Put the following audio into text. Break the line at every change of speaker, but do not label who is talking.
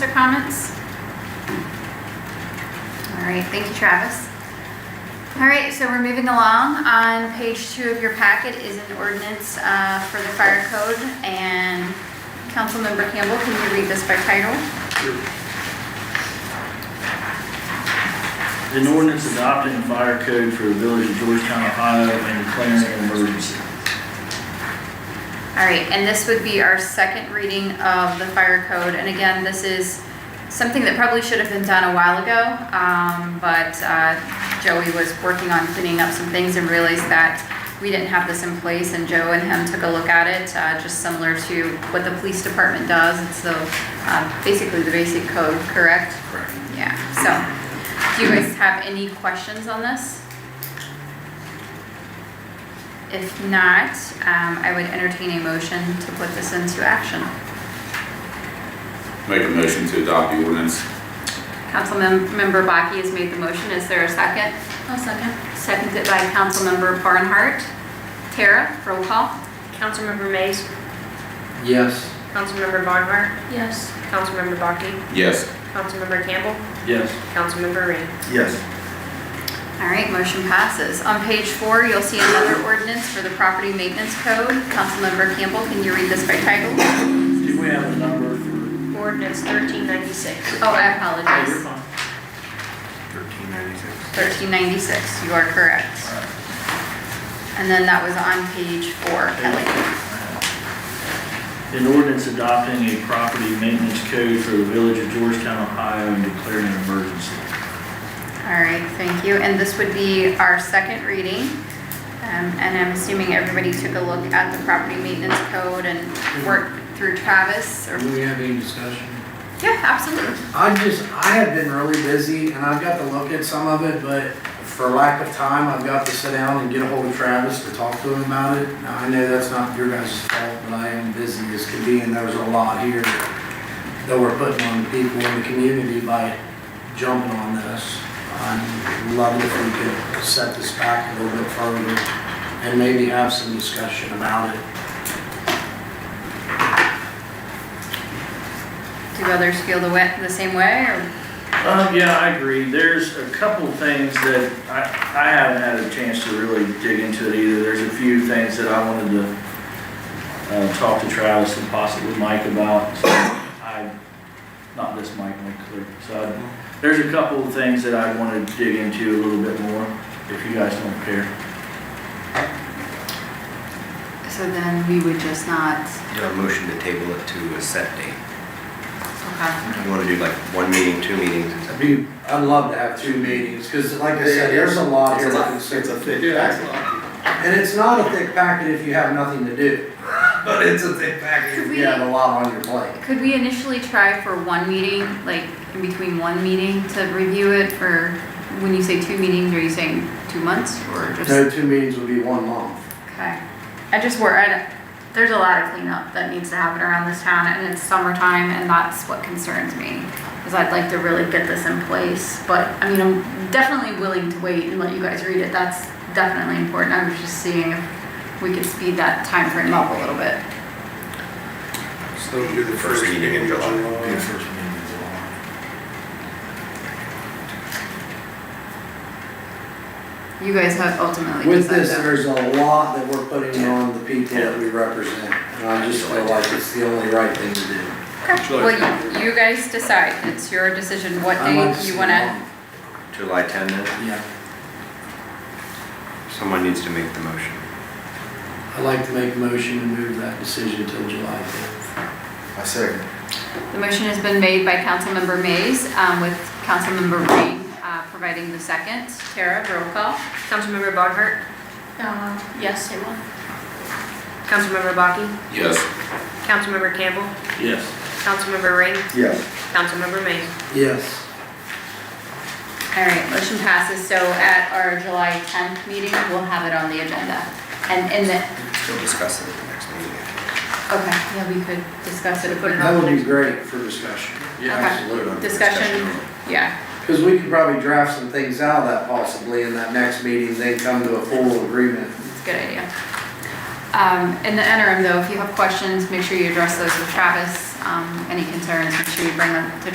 Other comments? All right, thank you, Travis. All right, so we're moving along. On page two of your packet is an ordinance uh, for the fire code, and Councilmember Campbell, can you read this by title?
An ordinance adopting the fire code for the village of Georgetown, Ohio, and declaring an emergency.
All right, and this would be our second reading of the fire code, and again, this is something that probably should have been done a while ago, um, but, uh, Joey was working on cleaning up some things and realized that we didn't have this in place, and Joe and him took a look at it, uh, just similar to what the police department does, and so, uh, basically the basic code, correct? Correct. Yeah, so, do you guys have any questions on this? If not, um, I would entertain a motion to put this into action.
Make a motion to adopt the ordinance.
Councilmember Baki has made the motion. Is there a second? No second. Seconded by Councilmember Barnhart. Tara, roll call.
Councilmember Mays,
Yes.
Councilmember Barnhart,
Yes.
Councilmember Baki,
Yes.
Councilmember Campbell,
Yes.
Councilmember Ring.
Yes.
All right, motion passes. On page four, you'll see another ordinance for the property maintenance code. Councilmember Campbell, can you read this by title?
Do we have a number for?
Ordinance thirteen ninety-six.
Oh, I apologize.
fine.
1396.
1396, you are correct. And then that was on page four, Kelly.
An ordinance adopting a property maintenance code for the village of Georgetown, Ohio, and declaring an emergency.
All right, thank you. And this would be our second reading. Um, And I'm assuming everybody took a look at the property maintenance code and worked through Travis or?
Do we have any discussion?
Yeah, absolutely.
I just, I have been really busy and I've got to look at some of it, but for lack of time, I've got to sit down and get a hold of Travis to talk to him about it. Now, I know that's not your guys' fault, but I am busy as can be and there's a lot here that we're putting on the people in the community by jumping on this. I'd love if we could set this back a little bit further and maybe have some discussion about it.
Do others feel the way, the same way or?
Um, yeah, I agree. There's a couple things that I, I haven't had a chance to really dig into it either. There's a few things that I wanted to, uh, talk to Travis and possibly Mike about. So I, not this Mike, Mike Clear. So I- there's a couple of things that I want to dig into a little bit more, if you guys don't care.
So then we would just not,
Do a motion to table it to a set date.
okay.
You want to do like one meeting, two meetings, and something.
Be, I'd love to have two meetings, because like I said, there's a lot here. to
It's a
consider.
thick packet,
And it's not a thick packet if you have nothing to do.
but it's a thick packet.
Could
If
we,
you have a lot on your plate.
could we initially try for one meeting, like in between one meeting to review it? Or when you say two meetings, are you saying two months or just?
No two meetings would be one month.
Okay. I just wor I, there's a lot of cleanup that needs to happen around this town and it's summertime and that's what concerns me. Cause I'd like to really get this in place, but I mean, I'm definitely willing to wait and let you guys read it. That's definitely important. I was just seeing if we could speed that time frame up a little bit.
So do the
First meeting in July.
Yeah, first meeting in July.
You guys have ultimately.
With this,
decided.
there's a lot that we're putting on the people that we represent, and I just feel like it's the only right thing to do.
Okay. Well, you, you guys decide. It's your decision what
I'd like
date
to
you
see
wanna.
July 10 then?
one. Yeah,
Someone needs to make the motion.
I'd like to make a motion to move that decision till July tenth.
I second.
The motion has been made by Councilmember Mays, um, with Councilmember Rain, uh, providing the second. Tara, roll call.
Councilmember Barnhart,
Yes, it will.
Councilmember Baki,
Yes.
Councilmember Campbell,
Yes.
Councilmember Ring,
Yes.
Councilmember Mays.
Yes,
All right, motion passes, so at our July 10th meeting, we'll have it on the agenda. And in the,
We'll discuss it at the next meeting.
okay, yeah, we could discuss it, or put it
that
on.
would be great for discussion.
Yeah, Okay.
Absolutely.
Discussion, yeah,
Because we could probably draft some things out of that possibly in that next meeting, then come to a full agreement.
it's a good idea. Um, in the interim though, if you have questions, make sure you address those with Travis. Um, any concerns, make sure you bring them to